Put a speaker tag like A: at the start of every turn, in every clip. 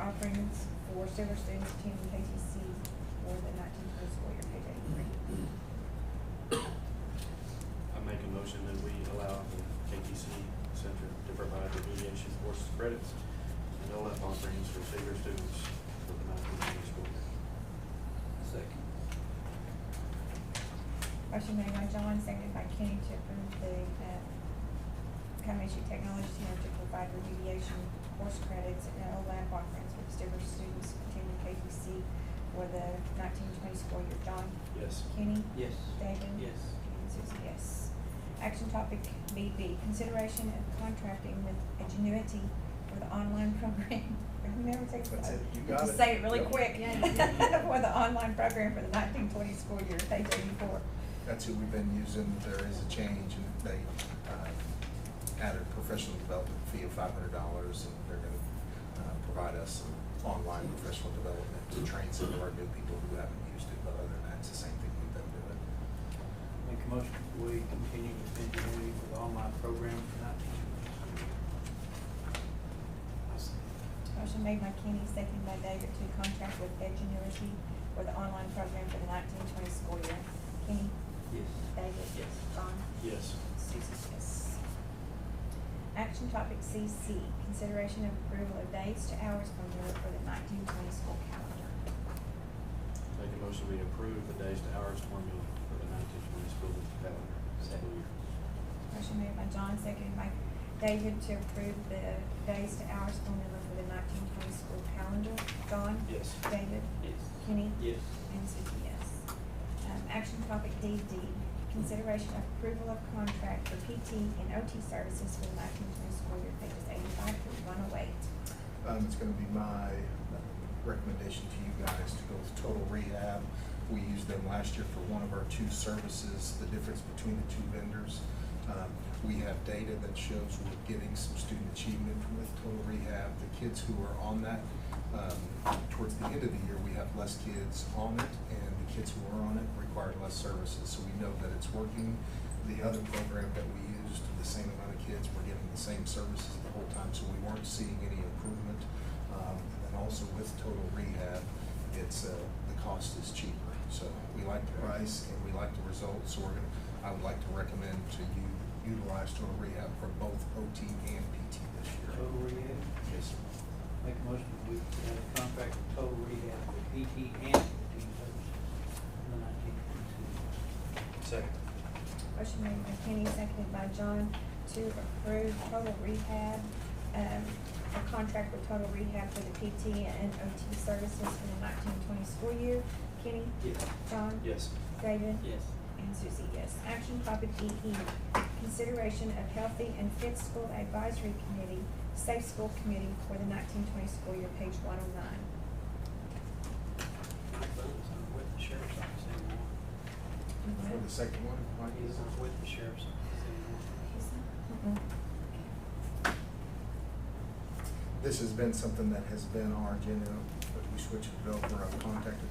A: offerings um, for several students attending KTC for the nineteen twenty school year payday three.
B: I make a motion that we allow the KTC Center to provide the mediation course credits and OLEP offerings for senior students for the nineteen twenty school year.
C: Second.
A: Motion made by John, seconded by Kenny to approve the, uh, Comanche Technology Center to provide remediation course credits and OLAP offerings for several students attending KTC for the nineteen twenty school year. John,
B: Yes.
A: Kenny,
C: Yes.
A: David.
C: Yes.
A: And Susie, yes. Action topic BB, consideration of contracting with Ingenuity for the online program. Never takes.
D: That's it. You got
A: Just
D: it.
A: say it really
D: Yep.
A: quick.
E: Yeah, yeah, yeah.
A: For the online program for the nineteen twenty school year, page eighty-four.
D: That's who we've been using, there is a change, and they uh, added professional development fee of five hundred dollars, and they're gonna uh, provide us some online professional development to train some of our new people who haven't used it, but other than that, it's the same thing we've been doing.
C: Make a motion, we continue with ingenuity with online program for nineteen twenty.
A: Motion made by Kenny, seconded by David to contract with Ingenuity for the online program for the nineteen twenty school year. Kenny,
C: Yes.
A: David.
C: Yes.
A: John.
B: Yes.
A: Susie, yes. Action topic CC, consideration of approval of dates to hours from work for the nineteen twenty school calendar.
B: Make a motion we approve the days to hours formula for the nineteen twenty school calendar school year.
A: Motion made by John, seconded by David to approve the days to hours formula for the nineteen twenty school calendar. John?
B: Yes.
A: David?
C: Yes.
A: Kenny?
C: Yes.
A: And Susie, yes. Um, action topic DD, consideration of approval of contract for PT and OT services for the nineteen twenty school year, pages eighty-five through one oh eight.
D: Um, it's gonna be my recommendation to you guys to go with Total Rehab. We used them last year for one of our two services, the difference between the two vendors. Um, we have data that shows we're getting some student achievement with Total Rehab. The kids who are on that, um, towards the end of the year, we have less kids on it, and the kids who are on it require less services, so we know that it's working. The other program that we used, the same amount of kids, were getting the same services the whole time, so we weren't seeing any improvement. Um, and also with total rehab, it's, uh, the cost is cheaper, so we like the price and we like the results, so we're gonna, I would like to recommend to you utilize total rehab for both OT and PT this year.
C: Total rehab.
D: Yes.
C: Make a motion, we have a contract with total rehab for PT and fifteen services for the nineteen twenty-two.
B: Second.
A: Motion made by Kenny, seconded by John, to approve total rehab, um, a contract with total rehab for the PT and OT services for the nineteen twenty school year. Kenny?
C: Yes.
A: John?
B: Yes.
A: David?
C: Yes.
A: And Susie, yes. Action topic EE, consideration of healthy and fit school advisory committee, safe school committee for the nineteen twenty school year, page one oh nine.
C: My son's not with the sheriff's office anymore.
D: For the second one, Mike?
C: He's not with the sheriff's office anymore.
A: Mm-hmm.
D: this has been something that has been our agenda, but we switched it over, I've contacted,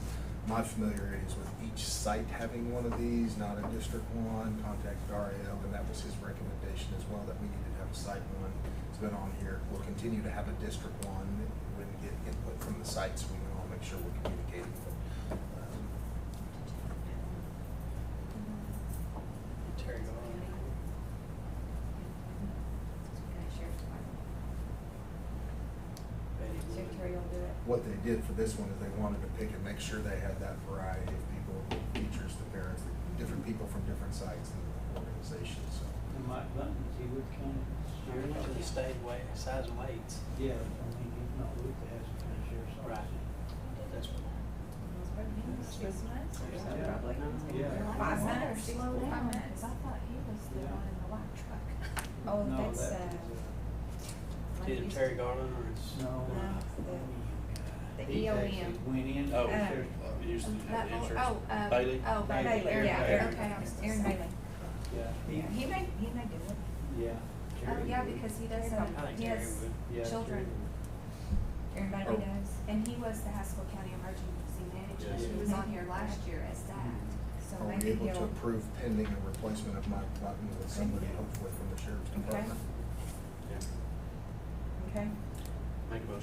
D: my familiarity is with each site having one of these, not a district one, contacted REO, and that was his recommendation as well, that we needed to have a site one. It's been on here, we'll continue to have a district one, when we get input from the sites, we can all make sure we're communicating, but, um,
C: Terry Garland. Betty Wood.
A: Secretary will do it.
D: what they did for this one is they wanted to pick and make sure they had that variety of people, the teachers, the parents, the different people from different sites and organizations, so.
C: And Mike Bunton, is he with county sheriff's?
F: Remember the
C: office?
F: state wa size and weights.
C: Yeah, I mean, he's not with the Harrison County Sheriff's Office.
F: Right. That's what.
A: Six months or so,
C: Yeah.
A: probably.
C: Yeah.
A: Five months or six,
E: Slow down,
A: five
E: 'cause
A: months.
E: I thought he was the
C: Yeah.
E: one in the white truck.
A: Oh,
C: No,
A: that's,
C: that
A: uh,
C: is,
F: Did it Terry Garland or it's?
C: uh, No.
A: No, the
C: He actually
A: EOM.
C: Went in.
B: Oh,
A: Uh,
B: it used to have
E: That
B: the
E: old-
B: insurance.
E: oh, uh,
B: Bailey?
E: Oh,
A: Bailey,
E: Bailey,
C: Bailey,
A: yeah,
C: Bailey.
A: Aaron, okay, I was- Aaron Bailey.
C: Yeah, he,
A: He may, he may do it.
C: yeah.
E: Oh,
C: Terry
E: yeah,
C: Wood.
E: because he does,
A: I
E: have-
F: I think
E: he
F: Terry
E: has,
F: would.
C: Yeah, Terry
E: children.
C: Wood.
A: Aaron
D: Oh.
A: Bailey does.
E: and he was the Haskell County Emergency Management, he was on here last year as that.
A: So
D: Are we
A: maybe
D: able to
A: he'll,
D: approve pending a replacement of Mike Button with somebody hopefully from the sheriff's
A: Okay.
D: department?
B: Yeah.
A: okay?
B: Make a motion